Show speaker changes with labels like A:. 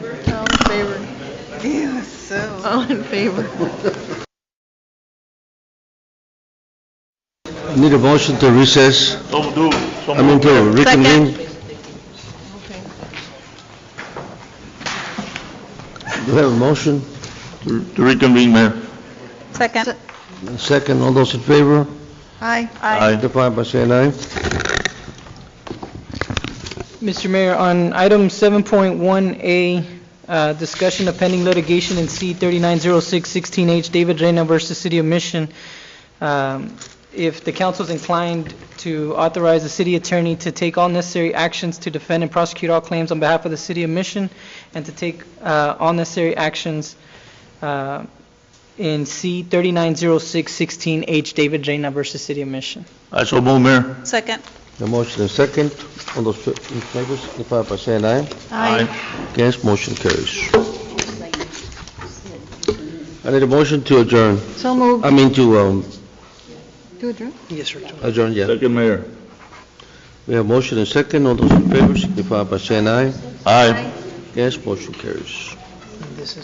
A: Yeah, so.
B: All in favor?
C: Need a motion to recess,
D: So do, so
C: I mean
D: move.
C: to reconvene.
B: Okay.
C: Do we have a motion?
D: To- To reconvene, Mayor.
A: Second.
C: Second, all those in favor?
A: Aye.
C: Signify by saying aye.
E: Mr. Mayor, on item 7.1A, uh, discussion of pending litigation in C-3906-16H, David Reyna versus City of Mission, um, if the council's inclined to authorize the city attorney to take all necessary actions to defend and prosecute all claims on behalf of the City of Mission, and to take uh, all necessary actions uh, in C-3906-16H, David Reyna versus City of Mission.
D: I so move, Mayor.
A: Second.
C: The motion is second, all those in favor, signify by saying aye. Against, motion carries. I need a motion to adjourn,
B: So moved.
C: I mean to um,
B: To adjourn?
E: Yes, sir.
C: adjourn, yeah.
D: Second, Mayor.
C: We have motion and second, all those in favor, signify by saying aye.
D: Aye.
C: Against, motion carries.
E: This is